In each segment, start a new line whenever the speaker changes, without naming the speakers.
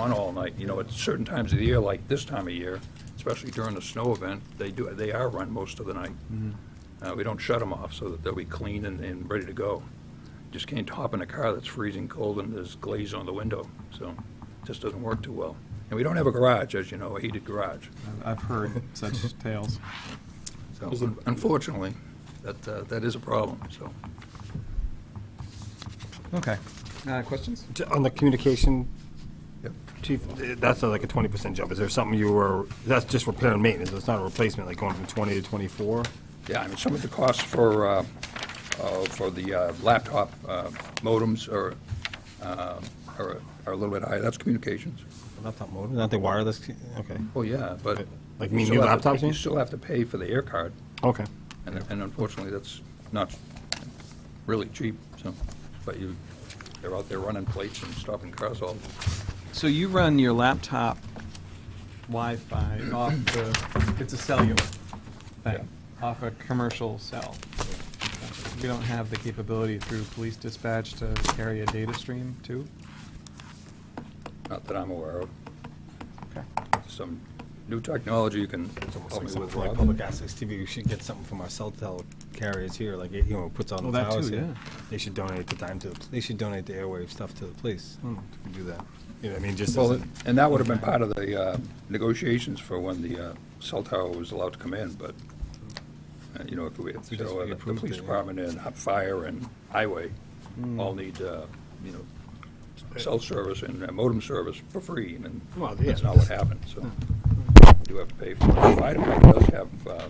on all night, you know, at certain times of the year, like this time of year, especially during the snow event, they do, they are run most of the night.
Mm-hmm.
Uh, we don't shut them off so that they'll be clean and, and ready to go. Just can't hop in a car that's freezing cold and there's glaze on the window, so it just doesn't work too well. And we don't have a garage, as you know, a heated garage.
I've heard such tales.
So unfortunately, that, uh, that is a problem, so.
Okay. Uh, questions?
T- On the communication,
Yep.
chief, eh, that's not like a twenty percent jump. Is there something you were, that's just repair and maintenance, it's not a replacement, like going from twenty to twenty-four?
Yeah, I mean, some of the costs for, uh, uh, for the uh, laptop uh, modems are, uh, are are a little bit higher, that's communications.
Laptop modem, not the wireless, okay.
Well, yeah, but.
Like me and
you
you
still have to-
laptops, you
You
mean?
still have to pay for the air card,
Okay.
and and unfortunately, that's not really cheap, so, but you, they're out there running plates and stopping cars all,
So you run your laptop Wi-Fi off the, it's a cellular thing, off a commercial cell. We don't have the capability through police dispatch to carry a data stream too?
not that I'm aware of.
Okay.
Some new technology you can
It's almost
help
like
me
something
with,
for like
Rob.
public access TV, we should get something from our cell tel carriers here, like, eh, you know, puts on
Well,
the
Oh, that
towers
too,
here.
yeah.
They should donate the time to, the they should donate the airwave stuff to the police. Hmm, we could Do that. You know, what I mean, just as
Well,
a-
and that would have been part of the uh, negotiations for when the uh, cell tower was allowed to come in, but, uh, you know, if we, if
We just-
so, uh,
we
the
approved
police
it, yeah. Hmm.
department and hot fire and highway all need, uh, you know, cell service and uh, modem service for free, and
Well,
that's
yeah. Hmm.
not what happened, so we do have to pay for it. The Fire department does have, uh,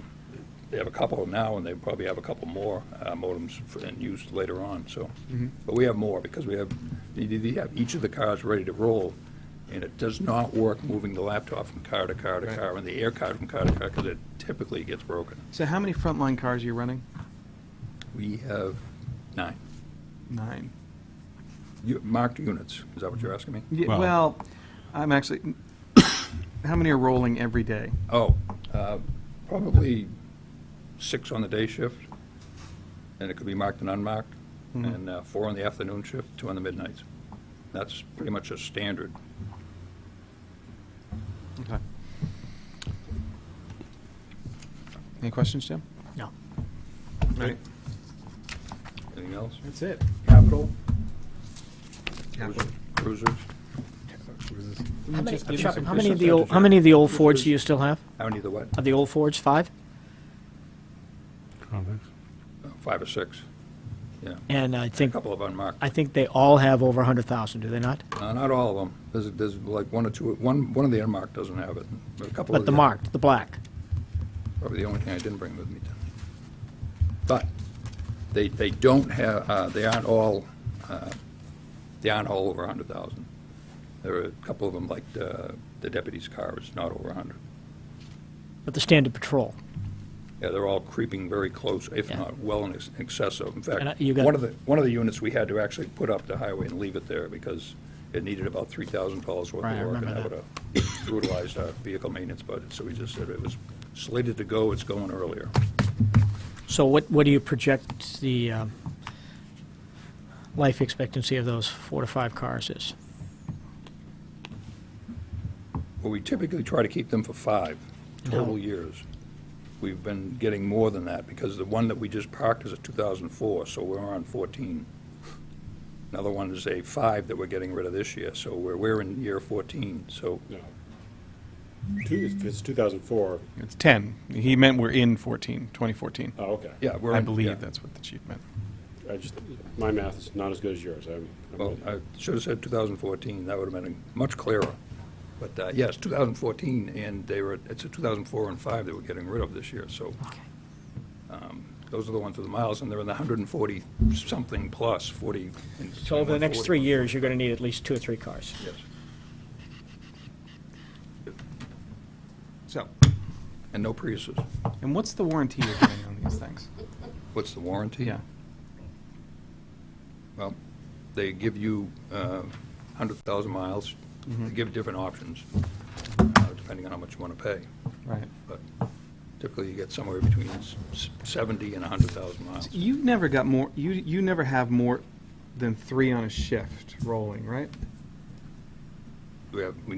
they have a couple now, and they probably have a couple more uh, modems for- in use later on, so.
Mm-hmm.
But we have more, because we have, they- they have each of the cars ready to roll, and it does not work moving the laptop from car to car to
Right.
car, and the air card from car to car, because it typically gets broken.
So how many frontline cars are you running?
We have nine,
Nine.
You- marked units, is that what you're asking me?
Ye-
Well-
Well, I'm actually, how many are rolling every day?
Oh, uh, probably six on the day shift, and it could be marked and unmarked,
Mhm.
and uh, four on the afternoon shift, two on the midnights. That's pretty much a standard.
Okay. Any questions, Jim?
No.
Right.
Anything else?
That's it.
Capital?
Capital.
Cruisers?
How many,
just give
Chuck,
us a
how many of the
percentage
old, how
of-
many of the old
Which
Fords
is-
do you still have?
How many of the what?
Of the old Fords, five?
Uh, Five or six? Yeah.
And I
A
think,
couple of unmarked.
I think they all have over hundred thousand, do they not?
Uh, Not all of them. There's, there's like one or two, one, one of the unmarked doesn't have it, but a couple of
But the marked, the black.
Probably the only thing I didn't bring with me. tonight. But they, they don't have, uh, they aren't all, uh, they aren't all over 100,000. There are a couple of them, like uh, the deputy's car is not over 100.
But the standard patrol.
Yeah, they're all creeping very close, if
Yeah.
not well in ex- excess of. In
And, uh,
fact,
you got-
one of the, one of the units we had to actually put up the highway and leave it there because it needed about $3,000 worth of work.
Right, I
And
remember
that would
that.
have brutalized our vehicle maintenance budget. So we just said it was slated to go, it's going earlier.
So what, what do you project the, um, life expectancy of those four to five cars is?
Well, we typically try to keep them for five total
No.
years. We've been getting more than that, because the one that we just parked is a 2004, so we're on 14. Another one is a five that we're getting rid of this year, so we're, we're in year 14, so,
No. Two, if it's 2004,
It's 10. He meant we're in 14, 2014.
oh, okay.
yeah, we're.
I
in- yeah.
believe that's what the chief meant.
I just, my math is not as good as yours. I'm, I'm
Well, I should have said 2014, that would have been much clearer. But, uh, yes, 2014, and they were, it's a 2004 and five that we're getting rid of this year, so um, those are the ones with the miles, and they're in the 140-something plus, 40. and-
So over the next
140.
three years, you're gonna need at least two or three cars.
Yes.
So,
And no Priuses.
and what's the warranty you're getting on these things?
What's the warranty?
Yeah.
Well, they give you uh, 100,000 miles. They give different options, uh, depending on how much you want to pay.
Right.
But typically, you get somewhere between s- 70 and 100,000 miles.
You never got more, you, you never have more than three on a shift rolling, right?
we have, we